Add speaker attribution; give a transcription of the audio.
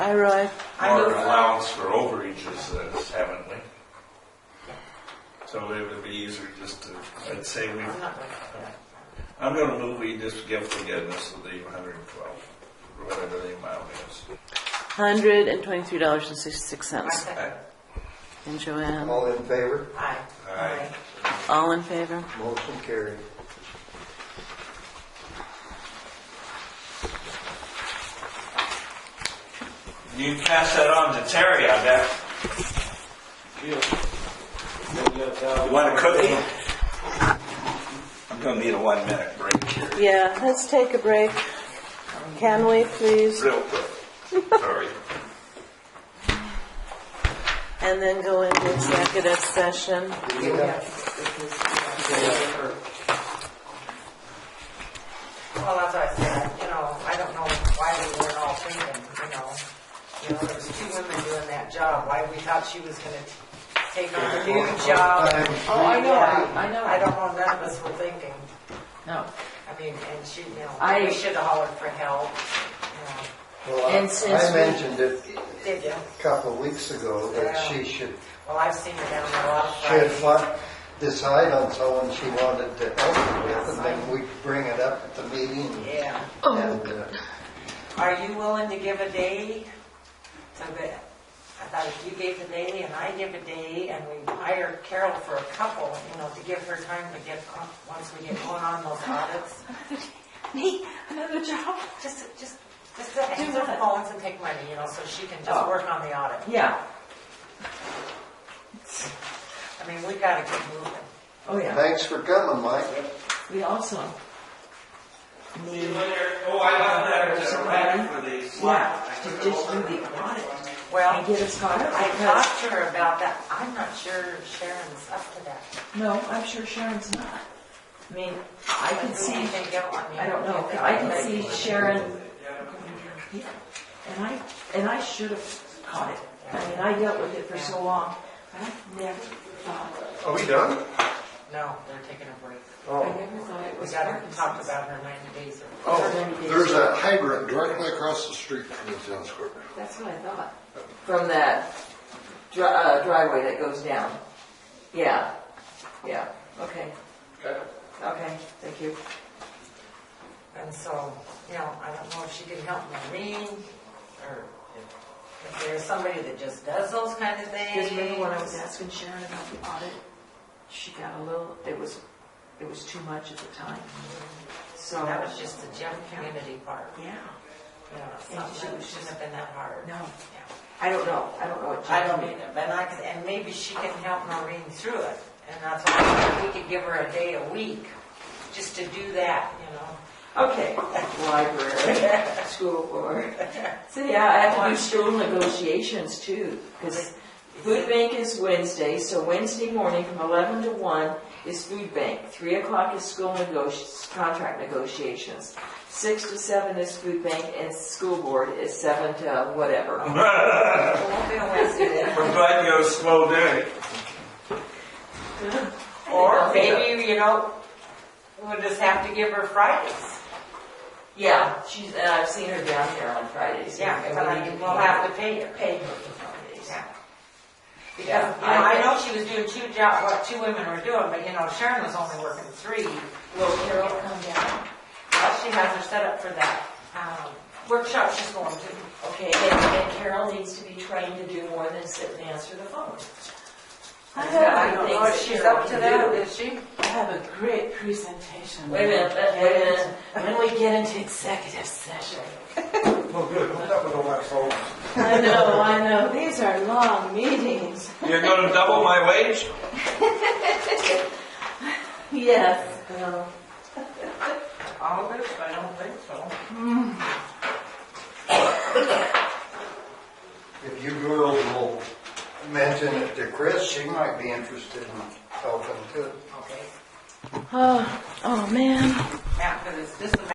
Speaker 1: I realize. I
Speaker 2: Or
Speaker 1: move-
Speaker 2: an allowance for overages, uh, haven't we? So it would be easier just to, I'd say we,
Speaker 1: I'm not going to.
Speaker 2: I'm gonna move we just give forgiveness of the hundred and twelve, or whatever the amount is.
Speaker 3: Hundred and twenty-three dollars and sixty-six
Speaker 1: I
Speaker 3: cents.
Speaker 1: second.
Speaker 3: And Joanne,
Speaker 4: All in favor?
Speaker 1: Aye.
Speaker 2: Aye.
Speaker 3: all in favor?
Speaker 4: Motion carried.
Speaker 2: You can pass that on to Terry, I bet. You want a cookie? I'm gonna need a one minute break here,
Speaker 3: Yeah, let's take a break. Can we please?
Speaker 2: real quick. Sorry.
Speaker 3: And then go into executive session.
Speaker 1: Well, as I said, you know, I don't know why we weren't all thinking, you know. You know, there was two women doing that job, why we thought she was gonna take on the new job.
Speaker 5: Oh, I know,
Speaker 1: Yeah,
Speaker 5: I know.
Speaker 1: I don't know, none of us were thinking.
Speaker 5: No.
Speaker 1: I mean, and she, you know,
Speaker 5: I-
Speaker 1: we should have hollered for help. you
Speaker 4: Well, I-
Speaker 5: And since
Speaker 4: I
Speaker 5: we-
Speaker 4: mentioned it
Speaker 1: know. Did you?
Speaker 4: a couple of weeks ago that
Speaker 1: Yeah.
Speaker 4: she should,
Speaker 1: Well, I've seen her down there a lot of
Speaker 4: she had
Speaker 1: times.
Speaker 4: fought, decide on someone she wanted to help her with, and then we bring it up at the meeting.
Speaker 1: Yeah.
Speaker 5: Oh,
Speaker 4: And, uh,
Speaker 1: Are you willing to give a day to the, I thought if you gave a day and I give a day and we hire Carol for a couple, you know, to give her time to get, on- once we get going on those audits?
Speaker 5: Me, another job?
Speaker 1: Just, just, just to answer
Speaker 5: what?
Speaker 1: phones and take money, you know, so she can just
Speaker 5: Oh.
Speaker 1: work on the audit.
Speaker 5: Yeah,
Speaker 1: I mean, we gotta get moving.
Speaker 5: oh yeah.
Speaker 4: Thanks for coming, Mike.
Speaker 5: We also need,
Speaker 2: Oh, I love that,
Speaker 5: Is
Speaker 2: it's
Speaker 5: it
Speaker 2: a
Speaker 5: ready?
Speaker 2: for these.
Speaker 5: yeah, to just do the audit and
Speaker 1: Well,
Speaker 5: get us caught up
Speaker 1: I
Speaker 5: because,
Speaker 1: talked to her about that. I'm not sure Sharon's up to that.
Speaker 5: no, I'm sure Sharon's not. I mean, I can see,
Speaker 1: Anything else? mean,
Speaker 5: I don't know,
Speaker 1: you
Speaker 5: but
Speaker 1: think
Speaker 5: I can
Speaker 1: anybody-
Speaker 5: see Sharon. Yeah, And I, and I should have caught it. I mean, I dealt with it for so long, but I never thought,
Speaker 4: Are we done?
Speaker 1: No, they're taking a break.
Speaker 5: I
Speaker 4: Oh,
Speaker 5: never thought it
Speaker 1: We
Speaker 5: was. Oh,
Speaker 1: gotta
Speaker 5: Parkinson's.
Speaker 1: talk about her ninety days or.
Speaker 6: There's a hydrant directly across the street from the tennis court.
Speaker 5: That's what I thought. From that dri- uh, driveway that goes down. Yeah, yeah, okay. Okay, thank you.
Speaker 1: And so, you know, I don't know if she can help me read, or if- if there's somebody that just does those kind of things.
Speaker 5: Because remember when I was asking Sharon about the audit, she got a little, it was, it was too much at the time. So,
Speaker 1: That was just the gym community part,
Speaker 5: yeah,
Speaker 1: you know,
Speaker 5: And
Speaker 1: something
Speaker 5: she
Speaker 1: that
Speaker 5: was
Speaker 1: shouldn't
Speaker 5: just-
Speaker 1: have been that hard.
Speaker 5: no,
Speaker 1: Yeah.
Speaker 5: I don't know, I don't know what.
Speaker 1: I don't either, but I, could- and maybe she can help Maureen through it, and that's why I said we could give her a day a week, just to do that, you know?
Speaker 5: Okay, library, school board. So yeah, I have to do school negotiations too, because food bank is Wednesday, so Wednesday morning from eleven to one is food bank. Three o'clock is school negoti, contract negotiations. Six to seven is food bank and school board is seven to whatever.
Speaker 1: It won't be a Wednesday then.
Speaker 2: We're glad you have a slow day.
Speaker 1: Or maybe, you know, we'll just have to give her Fridays.
Speaker 5: Yeah, she's, and I've seen her down here on Fridays.
Speaker 1: Yeah,
Speaker 5: and
Speaker 1: but
Speaker 5: we
Speaker 1: I
Speaker 5: need to
Speaker 1: mean,
Speaker 5: be-
Speaker 1: we'll have to pay her.
Speaker 5: Pay her for Fridays.
Speaker 1: Yeah. Because, you
Speaker 5: Yeah,
Speaker 1: know,
Speaker 5: I-
Speaker 1: I know she was doing two jobs, what two women were doing, but you know, Sharon was only working three.
Speaker 5: Will Carol come down?
Speaker 1: Well, she has her set up for that, um, workshop she's going to.
Speaker 5: Okay, and and Carol needs to be trained to do more than sit and answer the phone.
Speaker 1: I don't know if she's up to that, is she?
Speaker 7: I have a great presentation.
Speaker 5: Wait a minute, let- wait a minute.
Speaker 7: When we get into executive session.
Speaker 4: Well, good, I'm not with all my phones.
Speaker 7: I know, I know, these are long meetings.
Speaker 2: You're gonna double my wage?
Speaker 7: Yes.
Speaker 3: Um,
Speaker 7: well,
Speaker 1: All of it, I don't think so.
Speaker 4: If you girls will mention it to Chris, she might be interested in helping too.
Speaker 1: Okay,
Speaker 3: Oh, oh, man.
Speaker 1: yeah, because it's just a